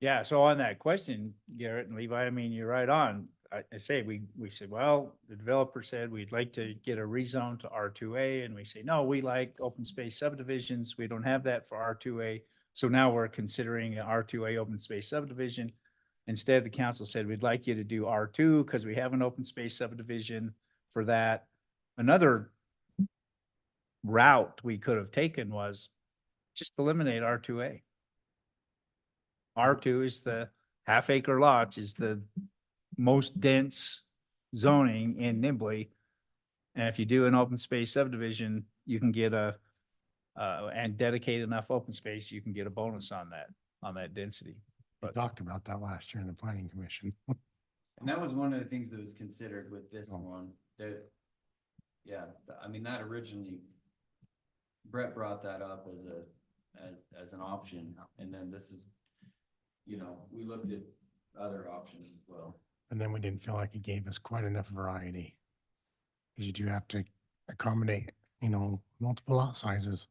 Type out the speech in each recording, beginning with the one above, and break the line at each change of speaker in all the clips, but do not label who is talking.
Yeah, so on that question, Garrett and Levi, I mean, you're right on. I, I say, we, we said, well, the developer said we'd like to get a rezone to R two A, and we say, no, we like open space subdivisions. We don't have that for R two A. So now we're considering an R two A open space subdivision. Instead, the council said, we'd like you to do R two, because we have an open space subdivision for that. Another route we could have taken was just eliminate R two A. R two is the half acre lots is the most dense zoning in Nibley. And if you do an open space subdivision, you can get a, uh, and dedicate enough open space, you can get a bonus on that, on that density.
We
But-
talked about that last year in the planning commission.
And that was one of the things that was considered with this
Oh.
one, that, yeah, th- I mean, that originally, Brett brought that up as a, as, as an option, and then this is, you know, we looked at other options as well.
And then we didn't feel like it gave us quite enough variety. Cause you do have to accommodate, you know, multiple lot sizes.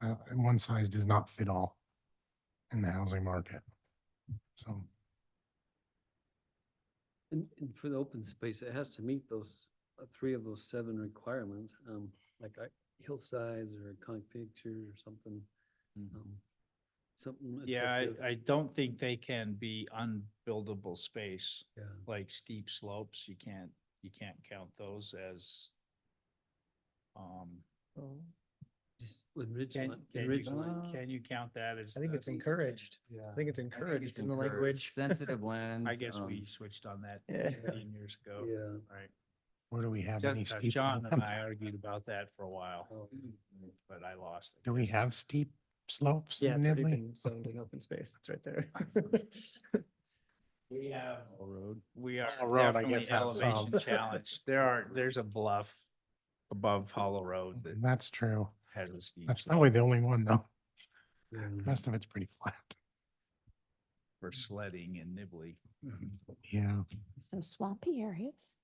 Uh, and one size does not fit all in the housing market. So
And, and for the open space, it has to meet those, uh, three of those seven requirements, um, like I, hillsides or iconic picture or something, um, something.
Yeah,
attractive.
I, I don't think they can be unbuildable space,
Yeah,
like steep slopes. You can't, you can't count those as, um,
just with
can,
Ridgeline,
can you,
Ridgeline.
can you count that as?
I think
the-
it's encouraged.
Yeah.
I think it's encouraged in the language.
Sensitive lands.
I guess we
um,
switched on that
Yeah.
fifteen years ago.
Yeah.
Right.
where do we have any
Just- uh,
steep?
John and
land?
I argued about that for a while,
Oh,
but I lost. it.
Do we have steep slopes
Yeah,
in
it's already
Nibley?
been zoned in open space. It's right there.
We have. Road. We are
Hollow Road, I
definitely
guess, has some.
elevation challenged. There are, there's a bluff above Hollow Road that
That's true.
has a steep
That's
slope
probably the only one though.
yeah.
Rest of it's pretty flat.
for sledding and nibbly
Yeah.
Some swampy areas.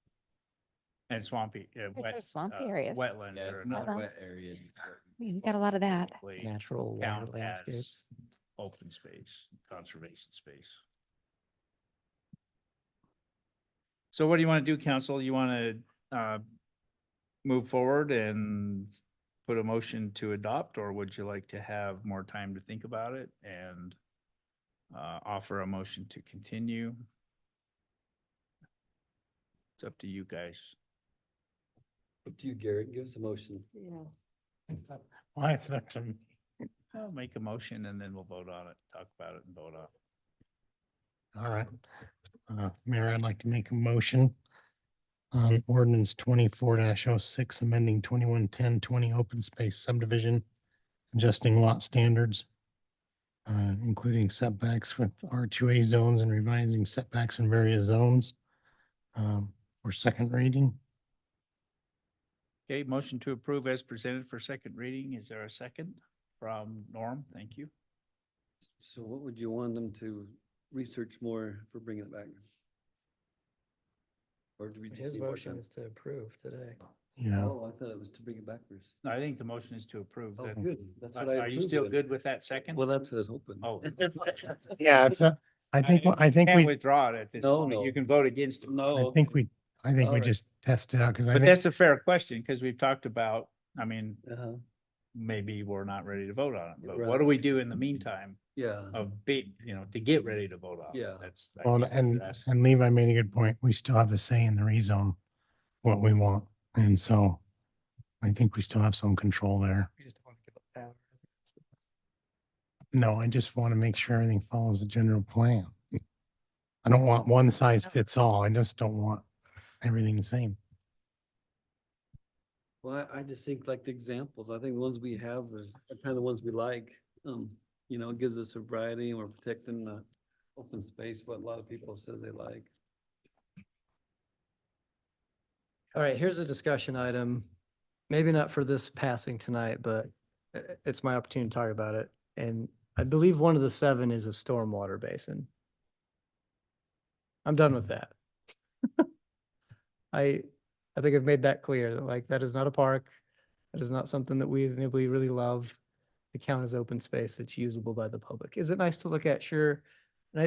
and swampy, uh,
There's
wet,
some
uh,
swampy areas. I
wetland.
Yeah,
or
it's not
another
wet areas. it's what we-
mean, we got a lot of that.
way
Natural water
count as
landscapes.
Open space, conservation space. So what do you want to do, council? You want to uh, move forward and put a motion to adopt, or would you like to have more time to think about it and uh, offer a motion to continue? It's up to you guys.
Up to you, Garrett, give us a motion.
Yeah.
Why is that to me?
I'll make a motion and then we'll vote on it, talk about it and vote on it.
All right. Uh, Mayor, I'd like to make a motion on ordinance twenty-four 6 amending twenty-one ten twenty open space subdivision, adjusting lot standards, uh, including setbacks with R two A zones and revising setbacks in various zones, um, for second reading.
Okay, motion to approve as presented for second reading. Is there a second from Norm? Thank you.
So what would you want them to research more for bringing it back? Or do we just?
His
need more
motion
time?
is to approve today.
Yeah,
Oh, I thought it was to bring it back first.
No, I think the motion is to approve.
Oh,
That-
good, that's what I.
Are are you still
approved of.
good with that second?
Well, that's what I was hoping.
Oh.
yeah, it's a, I think, I think
Can't
we,
withdraw it at this
No,
point. You
no.
can vote against it.
No.
I think we, I think we
Alright.
just test it out because I
But
think,
that's a fair question because we've talked about, I mean,
Uh-huh,
maybe we're not ready to vote on it. But what
Right.
do we do in the meantime
yeah,
of be, you know, to get ready to vote on? it?
Yeah.
That's. I
well,
think what
and,
you're asking.
and Levi made a good point. We still have a say in the rezone, what we want. And so I think we still have some control there.
We just don't want to give up power.
No, I just want to make sure everything follows the general plan. I don't want one size fits all. I just don't want everything the same.
well, I I just think like the examples, I think the ones we have are are kind of the ones we like. Um, you know, it gives us a variety and we're protecting the open space, what a lot of people says they like.
All right, here's a discussion item. Maybe not for this passing tonight, but i- i- it's my opportunity to talk about it. And I believe one of the seven is a stormwater basin. I'm done with that. I, I think I've made that clear, that, like, that is not a park. That is not something that we as Nibley really love. The count as open space that's usable by the public. Is it nice to look at? Sure.